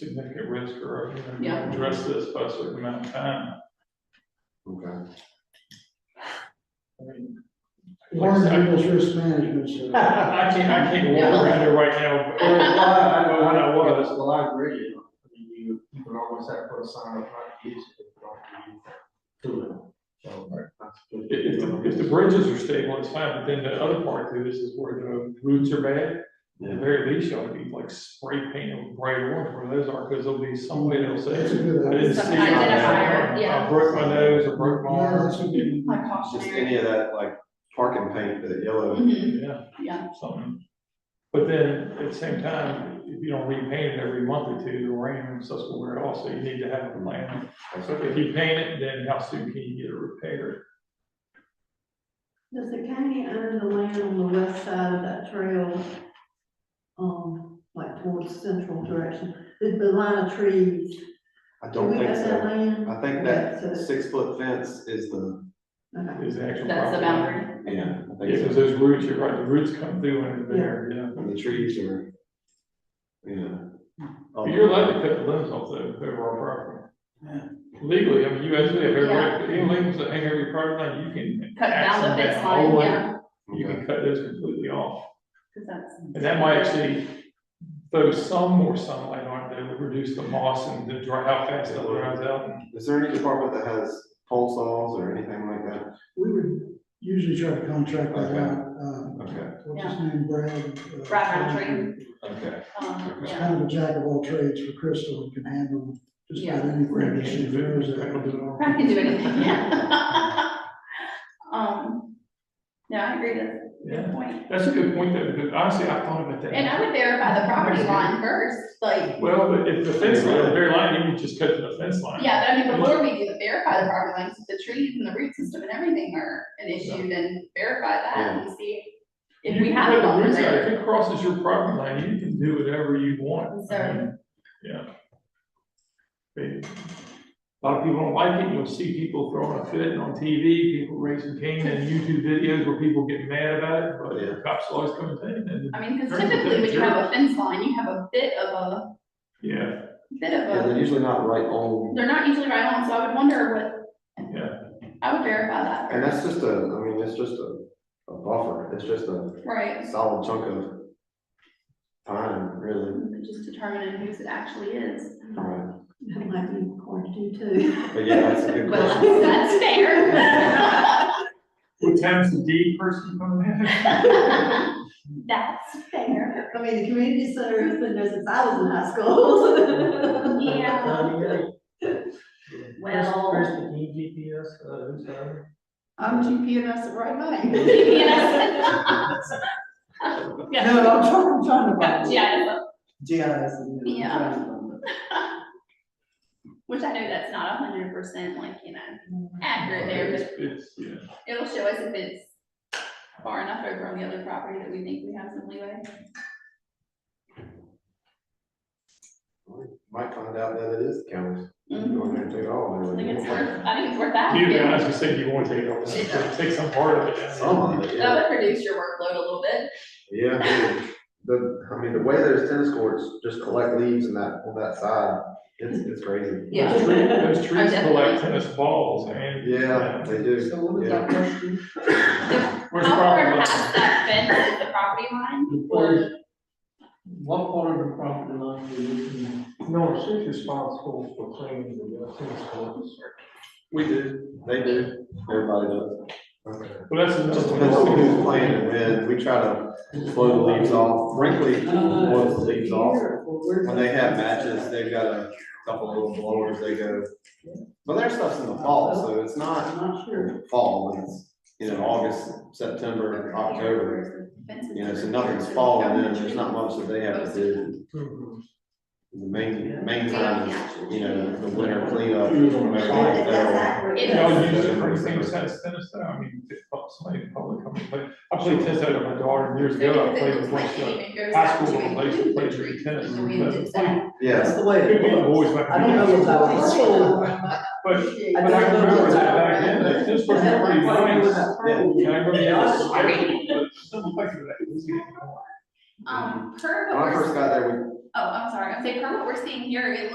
significant risk or are going Yeah. to address this by a certain amount of time. Okay. I mean, Warren I People's Risk Management Service. I can't, I can't walk around there right now, but but when I was, Well, I agree, you know, I mean, you, you can always have to put a sign up, not use it, but don't use it. So, that's good. If, if the- if the bridges are stable, it's fine, but then the other part to this is where the roots are bad. At the very least, you ought to be like spray painting with bright orange where those are, because there'll be some way they'll That's a say, good I didn't idea. see. Identifier, I- yeah. I broke my nose, I broke my Yeah, arm, that's a good. Like Just cautionary. any of that, like parking paint, that yellow, Mhm, yeah, Yeah, something. But then, at the same time, if you don't repaint it every month or two, the rain and stuff will wear off, so you need to have a plan. So if you paint it, then how soon can you get it repaired? Does the county own the land on the west side of that trail? Um, like towards central direction, the, the line of trees. I Do don't we think have that so. land? I think Okay, that so- six foot fence is the, okay. Is the actual. that's the property. boundary. yeah, I Yeah, think because so. those roots, you're right, the roots come through and they're there, yeah. And the trees are, you know. But You're allowed to cut the limbs off the over our property. Legally, I mean, you actually have every right, any limbs that hang over your property line, you can. Cut down the axe fence that whole line, way. yeah. You Okay. can cut those completely off, 'cause that's- and that might actually throw some more sunlight on it, that would reduce the moss and the dry, how fast it dries out. Is there any department that has pole saws or anything like that? We would usually try to contract that Okay. out, um, Okay, what's his name, Brad? uh, Brad Roundtree. okay. Um, It's yeah. kind of a jack of all trades for Crystal, and can handle just about anything that she throws at him. I can do anything, yeah. Um, no, I agree, that's a good Yeah, point. that's a good point, though, because honestly, I thought about that. And I would verify the property line first, like, Well, but if the fence line, the very line, you would just cut to the fence line. yeah, but I mean, before we do the verify the property lines, if the trees and the root system and everything are an issue, then verify that and see if we You have can it put the on roots out. there. If it crosses your property line, you can do whatever you want. So- I mean, Yeah. They- A lot of people don't like it, you'll see people throwing a fit on TV, people raising cane and YouTube videos where people get mad about it, but Yeah. the cops always come and take it. I mean, because typically when you have a fence line, you have a bit of a, Yeah, bit of Yeah, a, they're usually not right on, they're not usually right on, so I would wonder what. Yeah. I would verify that and that's just a, I mean, it's just a, a buffer, it's just a Right, solid chunk of time, really. just determining whose it actually is. Right. That might be hard to do too. But yeah, that's a good Well, question. that's fair. what time's the D person coming in? That's fair. I mean, the community center has been there since I was in high school. Yeah. Well, uh, I'm GPNS at Wright High. GPS. No, I'm trying, I'm trying to. Yeah, find it. yeah, GIS. and- Yeah. which I know that's not a hundred percent like, you know, accurate there, It's, but it's, yeah. it'll show us if it's far enough over on the other property that we think we have some leeway. Might find out that it is county. Mhm. Go in there and take it all. I maybe. think it's worth, I think it's worth that. You guys, you said you want to take it over, take some part of it. Some of it, yeah. That would reduce your workload a little bit. Yeah, I mean, the, I mean, the way those tennis courts just collect leaves in that, on that side, it's, it's crazy. Yeah. Oh, Those trees- Those trees definitely- collect tennis balls and. Yeah, they do. So what was that question? Where's the How far problem? past that fence is the property line? Or What part of the property line are you looking at? No, she's responsible for cleaning uh, the tennis courts. We do. They do. Everybody does. Okay. Well, that's another Just one. depends on who's playing and when. We try to blow the leaves off. Brinkley blows the leaves off. When they have matches, they've got a couple little blowers they go. But their stuff's in the fall, so it's not I'm not sure. fall, when it's, you know, August, September, October. Fence is- You know, so nothing's falling in, there's not much that they have to do. Mm-hmm. The main, main time is, you know, the winter cleanup. That- That's whatever. accurate. It Yeah, I is. was using it for the same size tennis though, I mean, it's not somebody in public, I mean, but I played tennis out of my daughter years ago, I played with one shot. High school, I played, played with the tennis, but, I Yeah, That's the way played- it we were was. always like. I don't know about this school. But, I but I don't know remember that about that. back then, that this was That's pretty why I was nice. at Pearl. Yeah, I remember Yeah, I was- that. I remember that. Some picture of that. Um, curb when I or, first got there, Oh, I'm sorry, I'm saying from what we're seeing here, it